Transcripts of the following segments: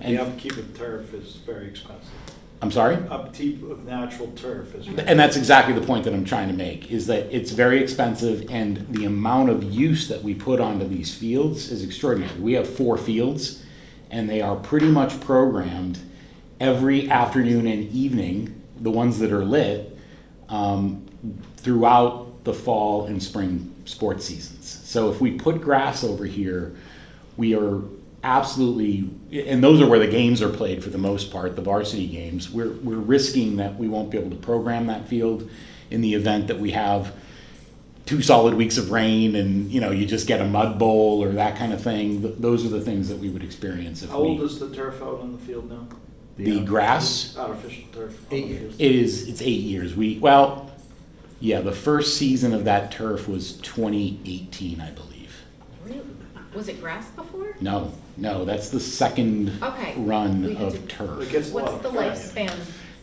And- The upkeep of turf is very expensive. I'm sorry? Upkeep of natural turf is. very- And that's exactly the point that I'm trying to make is that it's very expensive and the amount of use that we put onto these fields is extraordinary. We have four fields and they are pretty much programmed every afternoon and evening, the ones that are lit, um, throughout the fall and spring sports seasons. So if we put grass over here, we are absolutely and those are where the games are played for the most part the varsity games we're, we're risking that we won't be able to program that field in the event that we have two solid weeks of rain and you know you just get a mud bowl or that kind of thing Th- those are the things that we would experience if How we old is the turf out on the field now? the grass Artificial turf. on Eight the years. field. it is it's eight years we well yeah the first season of that turf was 2018 i believe Really? Was it grass before? no no that's the second Okay. run We had of to- turf It gets a lot What's of the rain. lifespan?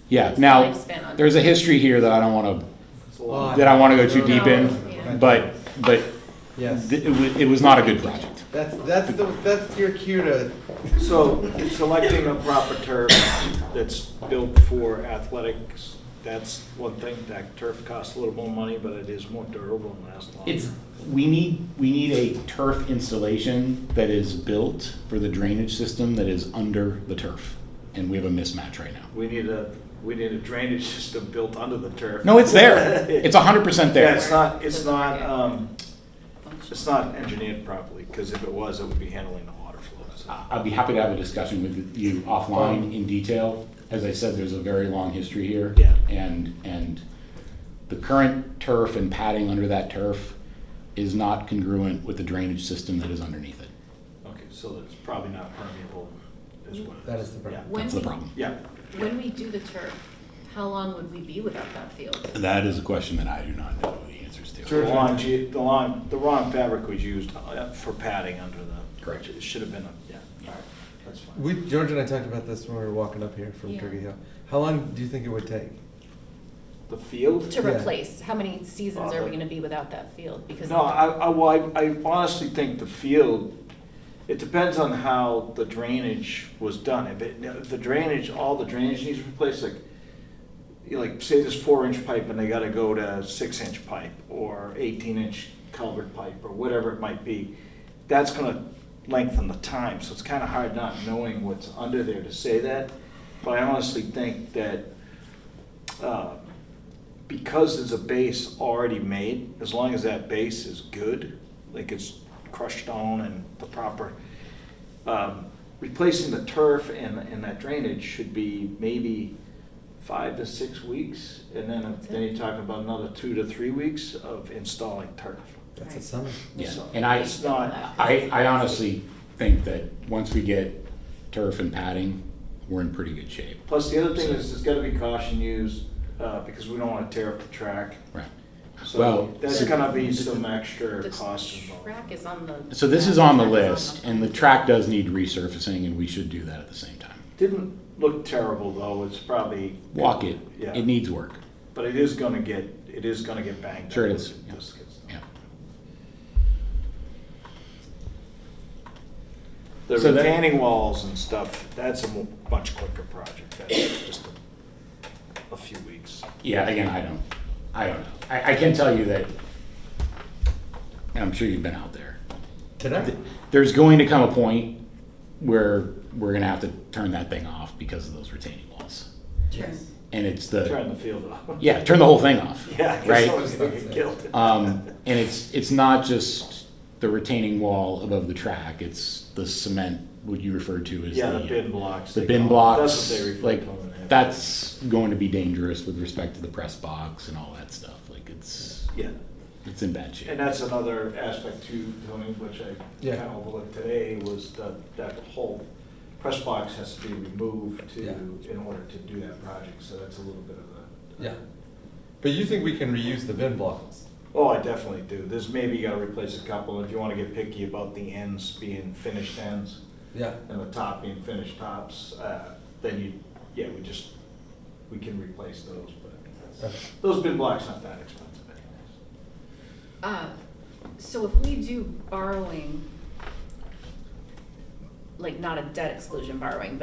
Yeah, What's the now, lifespan on there's a history here that I don't want It's a lot. to, that I want to go too deep in, Yeah. but, but Yes, th- it wa- it was not a good project. that's, that's the, that's your cue to, So selecting a proper turf that's built for athletics, that's one thing, that turf costs a little more money, but it is more durable and lasts longer. It's, we need, we need a turf installation that is built for the drainage system that is under the turf, and we have a mismatch right now. We need a, we need a drainage system built under the turf. No, it's there, it's hundred percent Yeah, there. it's not, it's not, um, it's not engineered properly, because if it was, it would be handling the water flows. I- I'd be happy to have a discussion with you offline in detail. As I said, there's a very long history here. Yeah. And, and the current turf and padding under that turf is not congruent with the drainage system that is underneath it. Okay, so it's probably not permeable as well. That is the problem. When That's the we- problem. Yeah, When we do the turf, how long would we be without that field? That is a question that I do not know the answers the Sure. to. lawn, ge- the lawn, the wrong fabric was used uh, for padding under the. Correct. It should have been, a- yeah, all right, that's fine. we, George and I talked about this when we were walking up here from Yeah. Turkey Hill. How long do you think it would take? The field? To Yeah. replace, how many seasons are we gonna be without that field? Because No, I, I, well, I I honestly think the field, it depends on how the drainage was done. If it, if the drainage, all the drainage needs replaced, like, you know, like, say there's four inch pipe and they gotta go to six inch pipe or eighteen inch culvert pipe or whatever it might be, that's gonna lengthen the time, so it's kinda hard not knowing what's under there to say that. But I honestly think that, uh, because there's a base already made, as long as that base is good, like it's crushed on and the proper, um, replacing the turf and, and that drainage should be maybe five to six weeks. And then, That's it. then you're talking about another two to three weeks of installing turf. That's a Right. summer. Yeah, So and I- It's not, I, I honestly think that once we get turf and padding, we're in pretty good shape. plus the other thing is there's gotta be caution used, uh, because we don't wanna tear up the track. Right. Well, So that's so- gonna be some extra costs the involved. track is on the. So this is on the track is list, and the track does need resurfacing, and we should do that at the same time. Didn't look terrible though, it's probably. Walk it, Yeah. it needs work. But it is gonna get, it is gonna get banged up. Sure it is, with yeah. this good stuff. Yeah. The So that- retaining walls and stuff, that's a mo- much quicker project, that's just a- a few weeks. Yeah, again, I don't, I don't know. I, I can tell you that, and I'm sure you've been out there. Today? There's going to come a point where we're gonna have to turn that thing off because of those retaining walls. Sure. And it's the, Turn the field off. yeah, turn the whole thing off. Yeah, because Right? someone's gonna get killed. Um, and it's, it's not just the retaining wall above the track, it's the cement, what you referred to as Yeah, the bin blocks. the they call bin it. blocks, That's what they refer like to them in. that's going to be dangerous with respect to the press box and all that stuff. Like it's Yeah, it's in bad shape. and that's another aspect too, Tony, which I Yeah. kinda overlooked today, was that, that whole press box has to be removed to, Yeah. in order to do that project, so that's a little bit of a. Yeah. But you think we can reuse the bin blocks? Oh, I definitely do. There's maybe you gotta replace a couple, if you wanna get picky about the ends being finished ends Yeah. and the top being finished tops, uh, then you, yeah, we just, we can replace those, but Okay. those bin blocks not that expensive anyways. Uh, So if we do borrowing, like not a debt exclusion borrowing, but